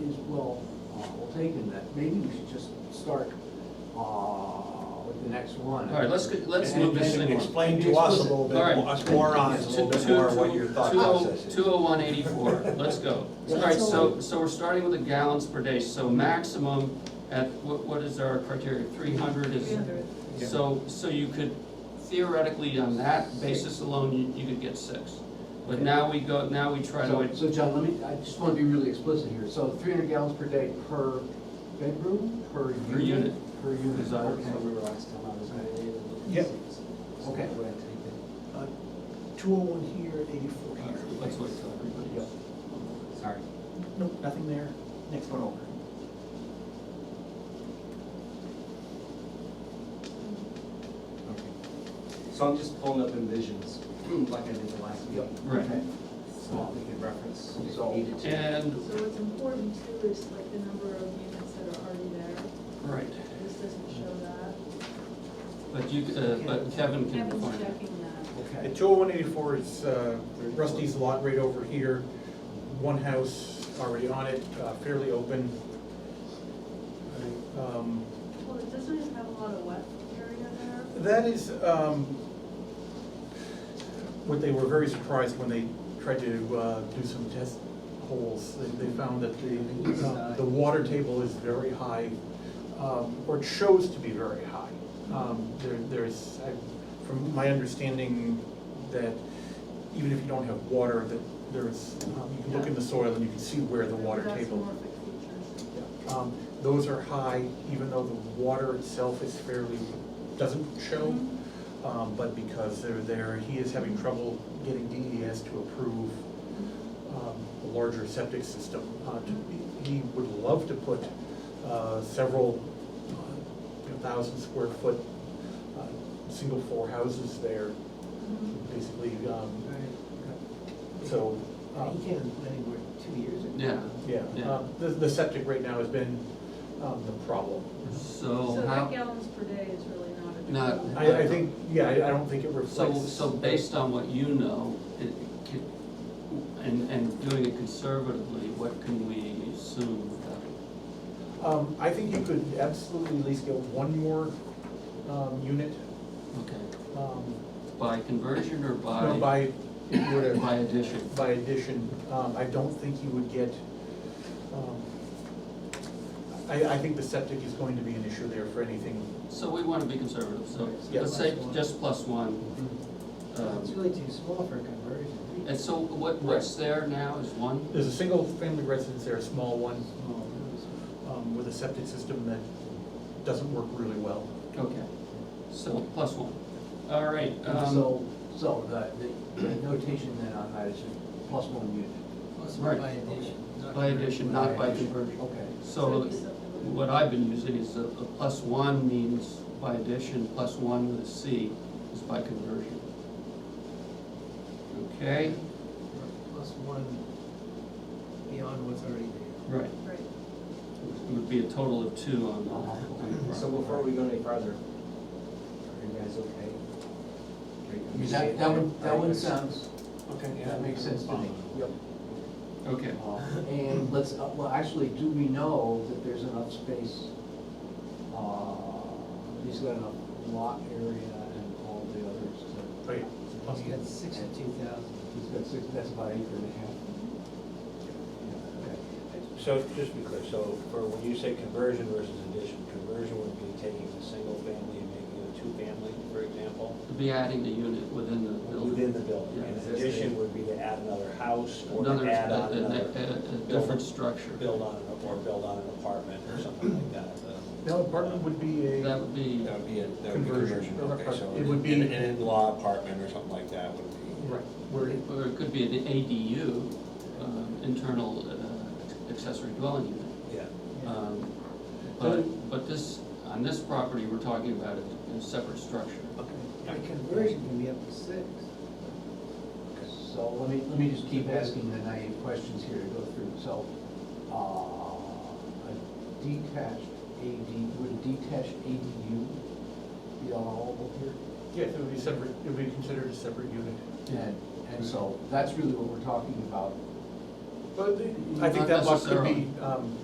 thinking uh, that maybe we should just start, uh, with the next one. All right, let's, go- let's And- move this and thing on. Explain to us a little All right. bit, more- us morons, a little bit more what your thought process is. Two oh one eighty-four, let's go. All right, oh so, so we're starting with the gallons per day, so maximum at, what, what is our criteria, three hundred is? So, so you could theoretically, on that basis alone, you, you could get six. But now we go, now we try So, to, so John, let me, I just wanna be really explicit here, so three hundred gallons per day per bedroom, per Per unit? Per Is unit, that- okay. So we were last time, I was gonna be able to. Yep. Okay. So we're gonna take it. Two oh one here, eighty-four here. let's wait till everybody else. Sorry. Nope, nothing there, next one over. So I'm just pulling up envisions, like I did the last Yep. meeting, Right. Okay. so we can reference if So- needed to. And, So what's important too is like the number of units that are already there, right, this doesn't show that. but you, uh, but Kevin can Kevin's define it. checking that. The Okay. two oh one eighty-four is uh, Rusty's lot right over here, one house already on it, uh, fairly open. Um, Well, it doesn't even have a lot of wet area there. That is, um, what they were very surprised when they tried to, uh, do some test holes. They, they found that the, uh, the water table is very high, um, or it shows to be very high. Um, there, there's, I, from my understanding, that even if you don't have water, that there's, um, you can look in the soil and you can see where the water That's table. morphic features. Um, Those are high, even though the water itself is fairly, doesn't show. Um, But because they're there, he is having trouble getting DES to approve um, a larger septic system. Uh, to- He would love to put uh, several uh, you know, thousand square foot, uh, single floor houses there, Mhm. basically. um, Right. So, um, And He came to the planning board two years ago. Yeah. yeah, Yeah. uh, the the septic right now has been um, the problem. So So how? eight gallons per day is really not a. Not- true- I, I think, yeah, I I don't think it So, reflects. so based on what you know, it could, and, and doing it conservatively, what can we assume about it? Um, I think you could absolutely at least get one more, um, unit, Okay, um, by conversion or by? no, by, if you were By to, addition? by addition, um, I don't think you would get, um, I, I think the septic is going to be an issue there for anything. So we want to be conservative, so Yeah. let's say just plus one. It's Um, really too small for a conversion. And so what, what's there now is one? There's a single family residence there, a small one, Small. um, with a septic system that doesn't work really well. Okay, so plus one. All right, um, So, so the, the the notation then on that is plus one unit. Plus Right. by addition. not by addition, not by conversion. Okay. So it'd be something what I've been using is a, a plus one means by addition, plus one with a C is by conversion. Okay, Plus one beyond what's already there. right, like- Right. it would be a total of two on the, on Uh-huh. the. So before we go any farther, are you guys okay? I mean, that, that one, that one sounds, okay, that makes sense to me. Yep. Okay, Uh, And let's, uh, well, actually, do we know that there's enough space? uh, He's got enough lot area and all the others to, Right. Plus you got sixty-two thousand. he's got six, that's about acre and a half. Yeah, okay. So just be clear, so for when you say conversion versus addition, conversion would be taking a single family and making it a two-family, for example, to be adding the unit within the building. within the building. Yeah. And addition would be to add another house or Another, to a, add on a- another, a- a building. different structure. build on, an- or build on an apartment or something like that. uh, Now, apartment would be a. That would be, That would be a, that would be Conversion. conversion, okay, so It would be- an an in-law apartment or something like that would be. Right, where it- or it could be an ADU, um, internal uh, accessory dwelling unit. Yeah. Um, But, but this, on this property, we're talking about a, a separate structure. By conversion can be up to six. So let me, let me just keep asking the naive questions here to go through. So, uh, a detached AD, would a detached ADU be allowable here? Yes, it would be separate, it would be considered a separate unit. And, and so that's really what we're talking about But I Not think that lot could be, necessarily. um,